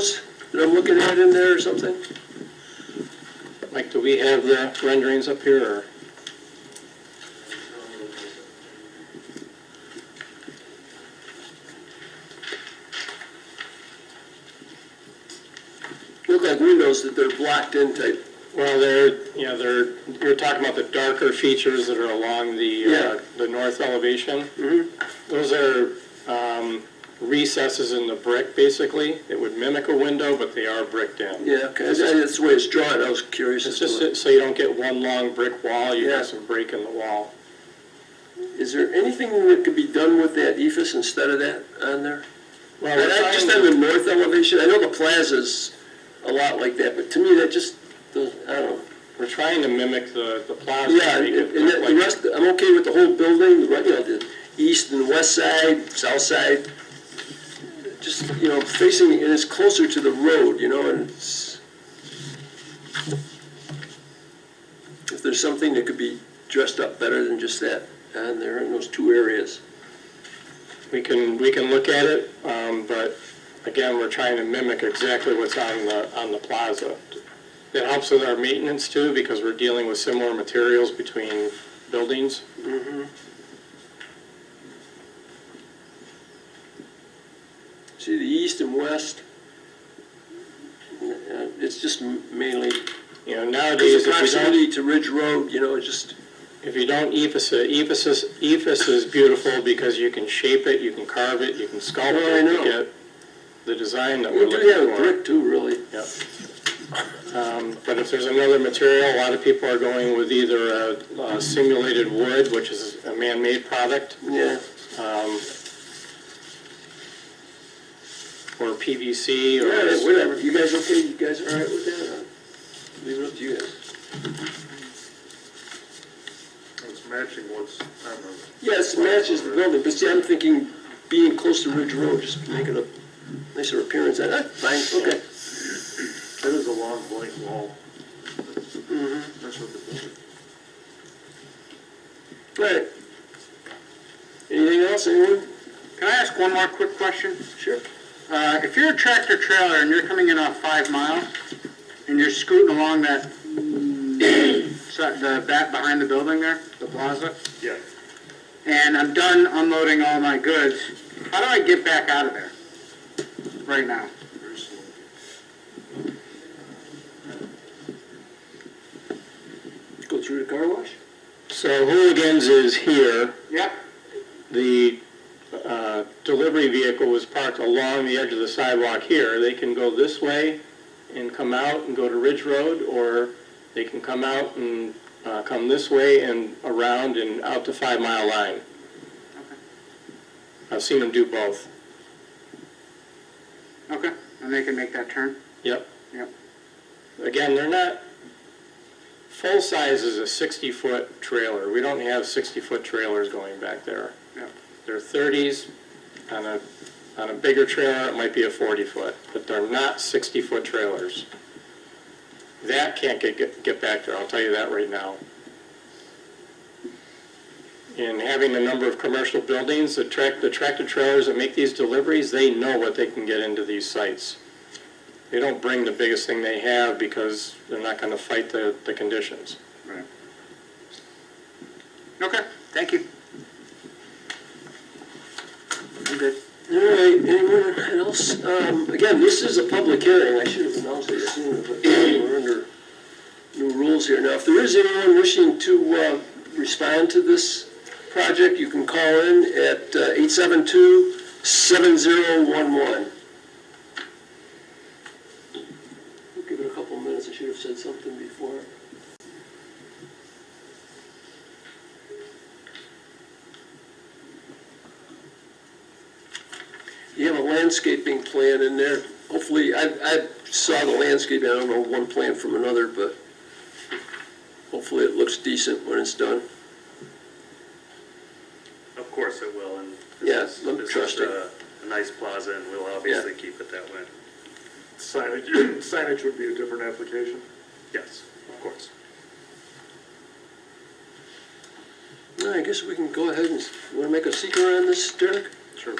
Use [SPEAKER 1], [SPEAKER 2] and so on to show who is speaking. [SPEAKER 1] that I'm looking at in there or something?
[SPEAKER 2] Mike, do we have the renderings up here, or?
[SPEAKER 1] Look like windows that they're blocked in type.
[SPEAKER 2] Well, they're, you know, they're, you're talking about the darker features that are along the,
[SPEAKER 1] Yeah.
[SPEAKER 2] uh, the north elevation.
[SPEAKER 1] Mhm.
[SPEAKER 2] Those are um, recesses in the brick, basically. It would mimic a window, but they are bricked in.
[SPEAKER 1] Yeah, okay, that's that's the way it's drawn, I was curious as
[SPEAKER 2] It's
[SPEAKER 1] to
[SPEAKER 2] just
[SPEAKER 1] what-
[SPEAKER 2] that- so you don't get one long brick wall, you
[SPEAKER 1] Yeah.
[SPEAKER 2] have some break in the wall.
[SPEAKER 1] Is there anything that could be done with that ephes instead of that on there?
[SPEAKER 2] Well,
[SPEAKER 1] And
[SPEAKER 2] we're
[SPEAKER 1] I just on
[SPEAKER 2] trying-
[SPEAKER 1] the north elevation, I know the plaza's a lot like that, but to me, that just, does- I don't know.
[SPEAKER 2] we're trying to mimic the, the plaza.
[SPEAKER 1] Yeah,
[SPEAKER 2] make
[SPEAKER 1] and
[SPEAKER 2] it
[SPEAKER 1] and
[SPEAKER 2] look
[SPEAKER 1] the
[SPEAKER 2] like-
[SPEAKER 1] the rest, I'm okay with the whole building, the right, you know, the east and west side, south side. Just, you know, facing, and it's closer to the road, you know, and it's. If there's something that could be dressed up better than just that, uh, and there in those two areas.
[SPEAKER 2] We can, we can look at it, um, but again, we're trying to mimic exactly what's on the, on the plaza. It helps with our maintenance too, because we're dealing with similar materials between buildings.
[SPEAKER 1] See the east and west? Uh, It's just mainly,
[SPEAKER 2] You know,
[SPEAKER 1] there's
[SPEAKER 2] nowadays,
[SPEAKER 1] a
[SPEAKER 2] if you don't,
[SPEAKER 1] proximity to Ridge Road, you know, it's just,
[SPEAKER 2] if you don't ephes it, ephes is, ephes is beautiful because you can shape it, you can carve it, you can sculpt
[SPEAKER 1] Oh, I
[SPEAKER 2] it
[SPEAKER 1] know.
[SPEAKER 2] to get the design that we're
[SPEAKER 1] we do have
[SPEAKER 2] looking
[SPEAKER 1] a
[SPEAKER 2] for.
[SPEAKER 1] brick too, really.
[SPEAKER 2] Yep. Um, But if there's another material, a lot of people are going with either a uh, simulated wood, which is a man-made product,
[SPEAKER 1] Yeah.
[SPEAKER 2] um, or PVC
[SPEAKER 1] All right,
[SPEAKER 2] or,
[SPEAKER 1] whatever, you guys okay, you guys all right with that? I'll Leave it up to you guys.
[SPEAKER 3] It's matching what's on the,
[SPEAKER 1] Yes, it matches the building, but see, I'm thinking being close to Ridge Road, just make it a nicer appearance, I, I- fine, okay.
[SPEAKER 3] that is a long blank wall. That's
[SPEAKER 1] Mm-hmm.
[SPEAKER 3] that's what the building.
[SPEAKER 1] All right. Anything else, anyone?
[SPEAKER 4] Can I ask one more quick question?
[SPEAKER 1] Sure.
[SPEAKER 4] Uh, if you're a tractor trailer and you're coming in off five mile and you're scooting along that, so- the back behind the building there, the plaza,
[SPEAKER 3] Yeah.
[SPEAKER 4] and I'm done unloading all my goods, how do I get back out of there right now?
[SPEAKER 3] very slow.
[SPEAKER 1] Go through the car wash?
[SPEAKER 2] so hooligans is here.
[SPEAKER 4] Yep.
[SPEAKER 2] The uh, delivery vehicle was parked along the edge of the sidewalk here. They can go this way and come out and go to Ridge Road, or they can come out and uh, come this way and around and out to Five Mile Line. I've seen them do both.
[SPEAKER 4] Okay, and they can make that turn?
[SPEAKER 2] Yep.
[SPEAKER 4] Yep.
[SPEAKER 2] Again, they're not, full size is a 60-foot trailer. We don't have 60-foot trailers going back there.
[SPEAKER 4] Yep.
[SPEAKER 2] They're 30s. On a, on a bigger trailer, it might be a 40-foot, but they're not 60-foot trailers. That can't get- get, get back there, I'll tell you that right now. And having a number of commercial buildings, the tract- the tractor trailers that make these deliveries, they know what they can get into these sites they don't bring the biggest thing they have because they're not going to fight the, the conditions.
[SPEAKER 4] Right. Okay, thank you. I'm good.
[SPEAKER 1] All right, anyone else? Um, again, this is a public hearing, I should have announced it sooner, but we're under new rules here. Now, if there is anyone wishing to, uh, respond to this project, you can call in at uh, eight seven two seven zero one one. We'll give it a couple minutes, I should have said something before. You have a landscaping plan in there. Hopefully, I, I saw the landscaping, I don't know one plan from another, but hopefully it looks decent when it's done.
[SPEAKER 5] Of course it will, and
[SPEAKER 1] Yeah,
[SPEAKER 5] this is,
[SPEAKER 1] I'm
[SPEAKER 5] this is
[SPEAKER 1] trusting.
[SPEAKER 5] a, a nice plaza, and we'll obviously keep it that way.
[SPEAKER 3] Signage, signage would be a different application.
[SPEAKER 5] Yes, of course.
[SPEAKER 1] Well, I guess we can go ahead and, want to make a secret on this, Derek?
[SPEAKER 5] Sure.